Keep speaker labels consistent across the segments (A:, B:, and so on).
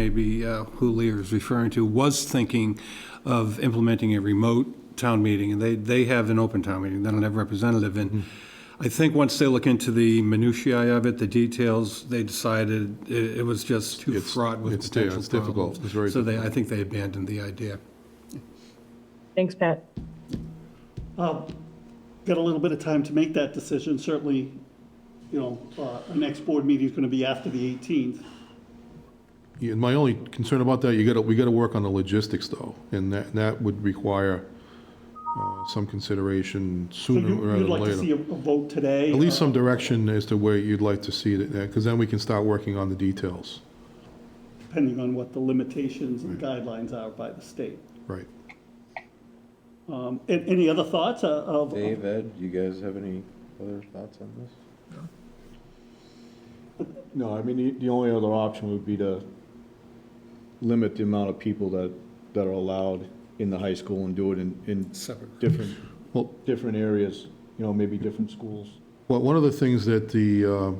A: maybe uh, Julia is referring to, was thinking of implementing a remote town meeting, and they, they have an open town meeting, they don't have representative, and
B: Mm-hmm.
A: I think once they look into the minutiae of it, the details, they decided it, it was just too
B: It's-
A: fraught with
B: it's- yeah,
A: potential
B: it's difficult.
A: problems.
B: It's very
A: So they, I think they abandoned the idea.
C: Thanks, Pat.
D: got a little bit of time to make that decision. Certainly, you know, uh, our next board meeting is going to be after the 18th.
B: Yeah, My only concern about that, you gotta, we gotta work on the logistics though, and that, that would require uh, some consideration
D: So
B: sooner
D: you-
B: rather
D: you'd
B: than
D: like to see a
B: later.
D: a vote today? uh,
B: At least some direction as to where you'd like to see it, because then we can start working on the details.
D: Depending on what the limitations and guidelines are by the state.
B: Right.
D: Um, a- Any other thoughts uh, of?
E: Dave, Ed, you guys have any other thoughts on this?
F: No, I mean, the, the only other option would be to limit the amount of people that, that are allowed in the high school and do it in, in
A: Separate.
F: different,
B: Well-
F: different areas, you know, maybe different schools.
B: Well, one of the things that the, uh,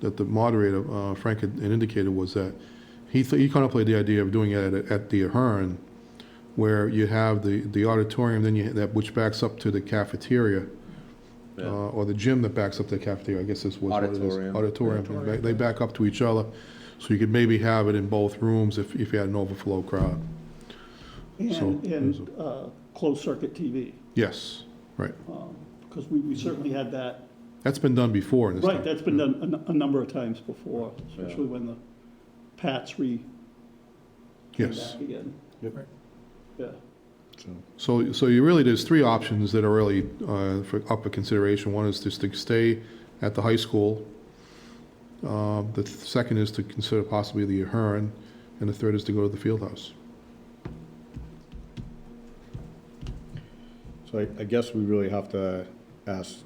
B: that the moderator, uh, Frank had had indicated was that he, th- he contemplated the idea of doing it at, at the Ahern, where you have the, the auditorium, then you, that, which backs up to the cafeteria, uh, or the gym that backs up to the cafeteria, I guess this was what it is.
E: Auditorium.
B: Auditorium, They- they back up to each other, so you could maybe have it in both rooms if, if you had an overflow crowd. So,
D: And,
B: there's
D: and uh, closed circuit TV,
B: Yes, right.
D: because we, we certainly had that.
B: That's been done before in this town.
D: Right, that's been done a n- a, number of times before, especially when the Pats re. came
B: Yes.
D: back Again.
F: Yep.
D: Yeah.
F: So,
B: So, so you really, there's three options that are really uh, for, up for consideration. One is just to stay at the high school. Uh, The th- second is to consider possibly the Ahern, and the third is to go to the field house.
F: so I, I guess we really have to ask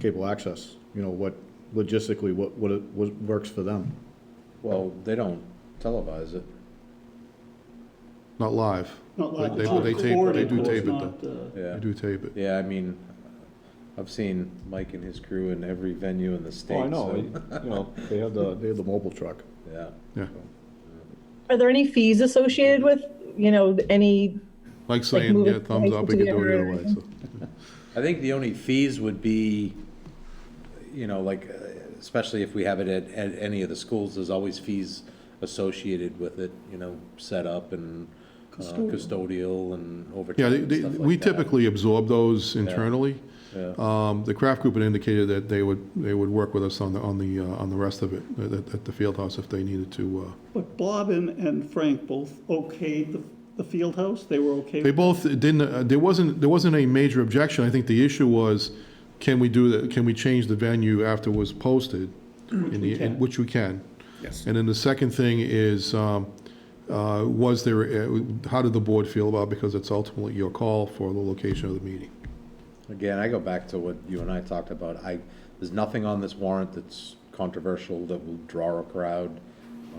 F: cable access, you know, what, logistically, what, what, it- what works for them.
E: Well, they don't televise it.
B: Not live.
D: Not like
B: They-
D: it's
B: they- they tape- they
D: recorded,
B: do
D: but it's
B: tape it,
D: not, uh,
B: You
E: Yeah.
B: do tape it.
E: Yeah, I mean, I've seen Mike and his crew in every venue in the state.
F: Oh, I know,
E: so-
F: you know, they have the, they have the mobile truck.
E: Yeah.
B: Yeah.
C: Are there any fees associated with, you know, any,
B: Like saying,
C: move it
B: yeah, thumbs up, we can do it either way. so.
E: I think the only fees would be, you know, like, uh, especially if we have it at, at any of the schools, there's always fees associated with it, you know, set up and uh, custodial and
B: Yeah,
E: overtime
B: they-
E: and
B: they-
E: stuff like
B: we
E: that.
B: typically absorb those internally. Um, The craft group had indicated that they would, they would work with us on the, on the, uh, on the rest of it, at- at at the field house if they needed to. uh,
D: But Bob and, and Frank both okayed the, the field house, they were okay?
B: They
D: with-
B: both didn't, uh, there wasn't, there wasn't a major objection. I think the issue was, can we do that, can we change the venue after it was posted?
E: Mm-hmm.
B: In the- in- Which we can.
A: Yes.
B: And then the second thing is, um, uh, was there, uh, how did the board feel about, it? because it's ultimately your call for the location of the meeting.
E: Again, I go back to what you and I talked about. I, there's nothing on this warrant that's controversial that will draw a crowd.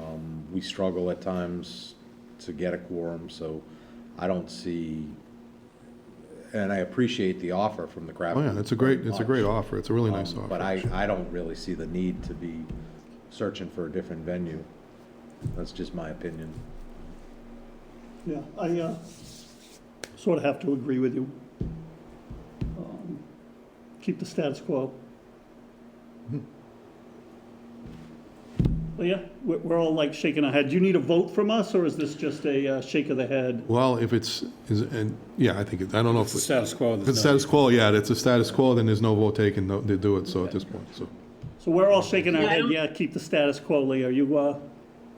E: Um, we struggle at times to get a quorum, so I don't see, and I appreciate the offer from the craft.
B: Oh, yeah, it's a
E: very
B: great, it's a
E: much.
B: great offer. It's a really nice
E: Um,
B: offer.
E: But I,
B: actually.
E: I don't really see the need to be searching for a different venue. That's just my opinion.
D: Yeah, I, uh, sort of have to agree with you. Um, Keep the status quo.
B: Hmm.
D: But yeah, we're, we're all like shaking our head. Do you need a vote from us, or is this just a uh, shake of the head?
B: Well, if it's, is, and, yeah, I think, it- I don't know if, it-
A: Status quo.
B: if it's status quo, yeah, it's a status quo, then there's no vote taken no- to do it, so at this point, so.
D: So we're all shaking our
C: Yeah, I
D: head,
C: don't-
D: yeah, keep the status quo, Lee. Are you, uh,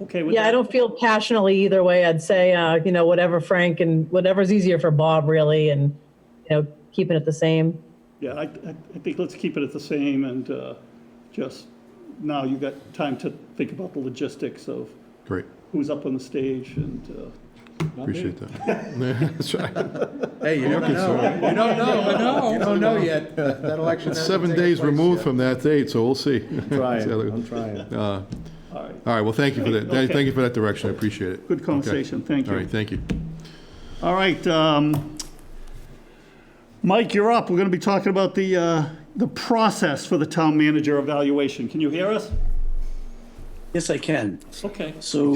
D: okay with that?
C: yeah, I don't feel passionately either way. I'd say, uh, you know, whatever Frank and whatever's easier for Bob really and, you know, keeping it the same.
D: Yeah, I, I- I think let's keep it at the same and uh, just, now you got time to think about the logistics of
B: Great,
D: who's up on the stage and, uh,
B: appreciate that. That's right.
E: Hey, you don't know, you don't know, I know. You don't know yet. That that election hasn't
B: Seven
E: taken
B: days
E: place
B: removed
E: yet.
B: from that date, so we'll see.
F: Trying,
B: See how that-
F: I'm trying.
D: all right.
B: All right, well, thank you for that.
D: Okay.
B: Thank you for that direction, I appreciate it.
D: Good conversation, thank
B: All right,
D: you.
B: thank you.
D: All right, um, Mike, you're up. We're going to be talking about the, uh, the process for the town manager evaluation. Can you hear us? Yes, I can.
G: Okay.
D: So